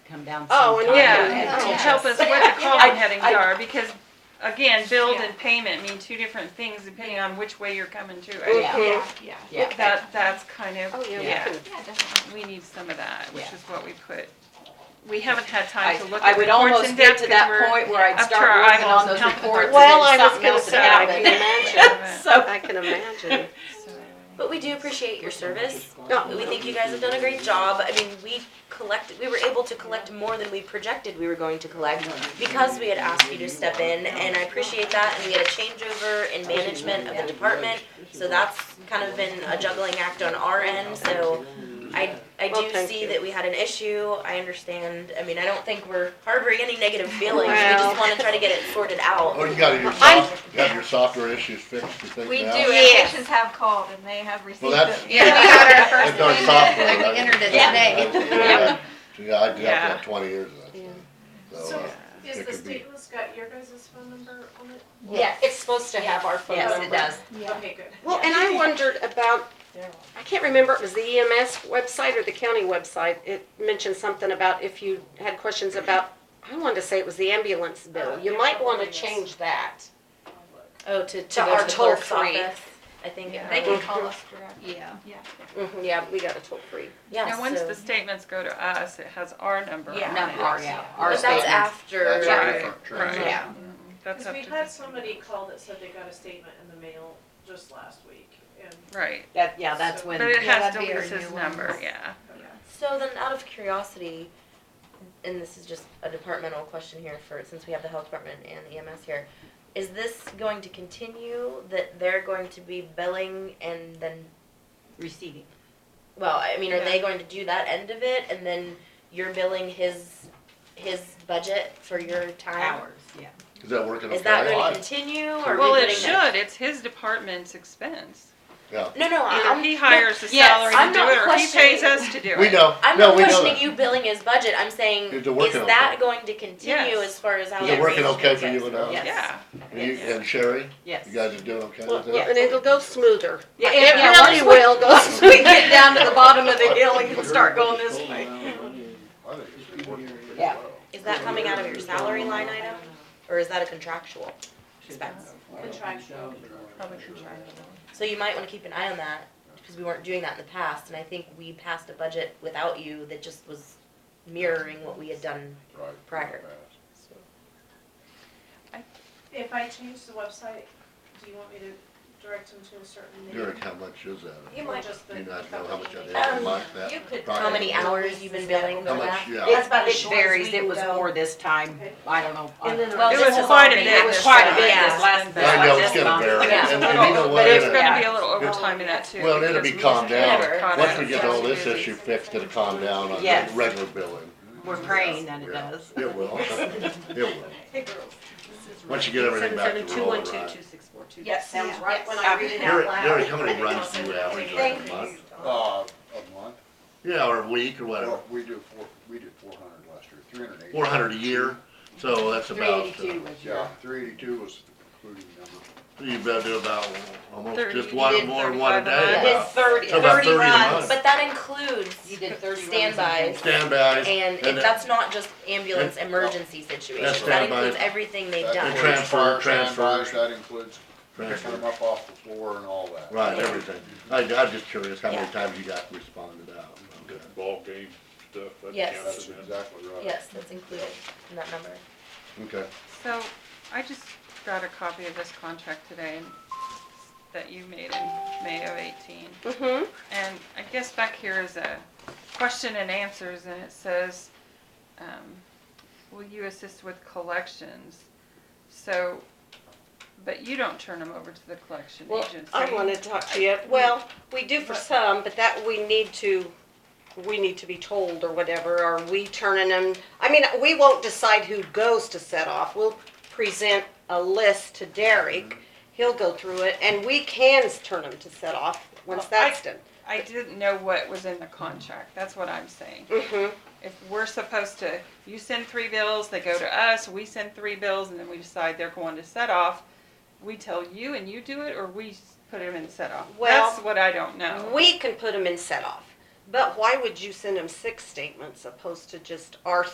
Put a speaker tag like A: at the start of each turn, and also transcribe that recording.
A: come down
B: Oh, and
A: sometime.
C: Yeah,
B: Yeah.
C: and
B: Yeah.
C: to help us what the column headings
B: I-
C: are, because again, build and
D: Yeah.
C: payment mean two different things depending on which way you're coming to.
B: Mhm.
C: I-
D: Yeah, yeah.
A: Yeah.
C: That, that's kind
B: Oh,
C: of,
B: yeah, we
C: yeah,
B: can-
D: Yeah, definitely.
C: we need some of that, which
A: Yeah.
C: is what we put. We haven't had
A: I,
C: time to look
A: I
C: at
A: would
C: reports in
A: almost get
C: depth
A: to
C: because
A: that
C: we're.
A: point where I'd
C: up to
A: start
C: our
A: working on
C: eyeballs
A: those
C: in helping with
A: reports and
C: the-
B: Well, I
A: then
B: was
A: something
B: gonna
A: else would
B: say, I can
A: happen.
B: imagine,
A: So,
B: I can imagine.
E: But we do appreciate your service.
B: Yeah.
E: We think you guys have done a great job. I mean, we collected, we were able to collect more than we projected we were going to collect because we had asked you to step in, and I appreciate that. And we had a changeover in management of the department, so that's kind of been a juggling act on our end, so I, I
B: Well,
E: do
B: thank
E: see
B: you.
E: that we had an issue. I understand. I mean, I don't think we're harboring any negative feelings. We
B: Well.
E: just wanna try to get it sorted out.
F: Oh, you got your soft, you got your software issues fixed, you think
D: We do,
F: now?
D: and patients have called and they have received them.
F: that's-
C: Yeah,
D: we got our first
F: I've done
D: payment.
F: software.
G: Like the
F: that-
G: internet
F: that-
G: today.
F: that- Yeah, I did
C: Yeah.
F: that for twenty years. of that
B: Yeah.
F: stuff. So,
H: So,
F: uh,
H: is
F: it
H: the
F: could be-
H: stateless got your guys' phone number on it?
G: Yes,
B: It's supposed to have our phone
A: yes,
B: number.
A: it does.
G: yeah.
H: Okay, good.
B: Well, and I wondered about, I can't remember, it was the EMS website or the county website. It mentioned something about if you had questions about, I wanted to say it was the ambulance bill. You might want to change that.
E: Oh, to, to
B: To
E: go
B: our
E: to the clerk's
B: toll-free.
E: office, I think.
C: Yeah.
E: uh,
D: They can call us directly.
G: Yeah.
B: Mhm, Uh-huh. Yeah, we got a toll-free.
E: Yeah,
C: Now, once
E: so-
C: the statements go to us, it has our number on it.
E: Yeah.
A: Not our, yeah, our
E: But that's
A: statements.
E: after.
F: That's
C: Right, Uh-huh.
F: Sure.
C: right.
A: Yeah.
C: That's
H: Cause
C: up
H: we
C: to
H: had
C: this,
H: somebody call that said they got a statement in the mail just last week, and
C: right.
A: That, yeah, that's when.
C: But it
G: Yeah,
C: has
G: that'd be our
C: Delisa's
G: new one.
C: number, yeah.
E: So then, out of curiosity, and this is just a departmental question here for, since we have the health department and EMS here, is this going to continue, that they're going to be billing and then,
A: Receiving.
E: well, I mean, are they going to do that end of it, and then you're billing his, his budget for your time?
A: Hours, yeah.
F: Is that working okay?
E: Is that gonna continue, or are we
C: Well, it
E: putting that-
C: should, it's his department's expense.
E: No, no, I-
C: Either
E: I'm.
C: he hires the
A: yes,
C: salary to
E: I'm
C: do
E: not
C: it, or he pays
E: questioning-
C: us to do it.
F: We know,
E: I'm
F: no,
E: not
F: we know
E: questioning
F: that.
E: you billing his budget. I'm saying,
F: Is
E: is
F: it working
E: that
F: okay?
E: going to continue
C: Yes.
E: as far as how
F: Is it
E: that
F: working
E: arrangement
F: okay for you
E: goes?
F: and us?
A: Yes.
C: Yeah,
F: You and Sherry,
A: Yes.
F: you guys are doing okay
B: Well,
F: with
B: well,
F: that?
B: and it'll go smoother.
A: Yeah,
B: It
A: yeah,
B: really
A: once we-
B: will go
A: Once we
B: smoother.
A: get down to the bottom of the hill, we can start going this way. Yeah.
E: Is that coming out of your salary line item, or is that a contractual?
H: contractual.
C: probably contractual.
E: So you might want to keep an eye on that because we weren't doing that in the past, and I think we passed a budget without you that just was mirroring what we had done prior. So-
H: If I change the website, do you want me to direct them to a certain name?
F: Derek, how much is that?
H: You might just.
F: Do you not know how much that is
E: Um,
F: a month, that?
E: How many hours you've been billing for
F: How much,
E: that?
F: yeah.
A: It,
E: about as
A: it
E: short as
A: varies,
E: we
A: it
E: can
A: was
E: go.
A: more this time,
H: Okay.
A: I don't know.
H: And then-
E: Well,
C: It
E: this
C: was
E: has
C: quite a
E: already-
C: bit
A: It was quite a bit
E: Yeah.
A: this last,
F: I know, it's
A: last
F: gonna
A: month.
F: vary,
E: Yeah.
F: and, and you know what,
C: But it's
F: in a-
C: gonna be a little overtime in that too.
F: well, it'll
C: because
F: be
C: we
F: calmed
C: just got
E: Whatever.
F: down,
C: caught
F: once
C: up
F: we get
C: in
F: all this
C: busy.
F: issue fixed, it'll calm down on the
A: Yes.
F: regular billing.
A: We're praying that it
F: Yeah.
A: does.
F: It will, it will.
H: Hey, girls.
F: Once you get everything back to normal, right?
A: six four two.
H: Yes, sounds
G: Yeah.
H: right when I read it out
F: Derek,
H: loud.
F: Derek, how many runs do you average like a month?
I: Uh, a month,
F: Yeah, or a week or whatever,
I: well, we do four, we did four hundred last year, three hundred eighty.
F: four hundred a year, so that's about, uh,
A: Three eighty-two was your.
I: Yeah, three eighty-two was the concluding number.
F: you better do about, almost
C: Thirty-
F: just
C: you
F: one
C: did
F: more than one a
C: 35
F: day.
E: I
A: month.
E: did
F: about.
E: thirty,
F: So Uh, about
E: thirty
F: 30 a
E: runs,
F: month.
E: but that includes
A: You did thirty runs.
E: standbys.
F: Standbys.
E: And it-
F: And it-
E: that's not just ambulance
I: and-
E: emergency situations, that
F: standby.
E: includes everything they've
I: That
E: done.
F: And
I: includes
F: Uh, transfer,
I: fire
F: transfer.
I: standbys, That includes picking them
F: Right,
I: up off the floor and all that.
F: Right, everything. I, I'm just curious how many
E: Yeah.
F: times you got responded out. Okay.
J: ball game stuff, that
E: Yes.
I: That's
J: counts as that.
I: exactly right.
E: Yes, that's included in that number.
F: Okay,
C: So I just got a copy of this contract today that you made in May of eighteen.
B: Mm-hmm.
C: And I guess back here is a question and answers, and it says, um, will you assist with collections? So, but you don't turn them over to the collection
B: Well,
C: agency.
B: I want to talk to you. Well, we do for some, but that we need to, we need to be told or whatever. Are we turning them? I mean, we won't decide who goes to set off. We'll present a list to Derek. He'll go through it and we can turn them to set off once
C: Well, I-
B: that's done.
C: I didn't know what was in the contract, that's what I'm saying.
B: Mm-hmm.
C: If we're supposed to, you send three bills, they go to us, we send three bills, and then we decide they're going to set off, we tell you and you do it, or we s- put them in set off?
B: Well,
C: That's what I don't know.
B: We can put them in set off. But why would you send them six statements opposed to just our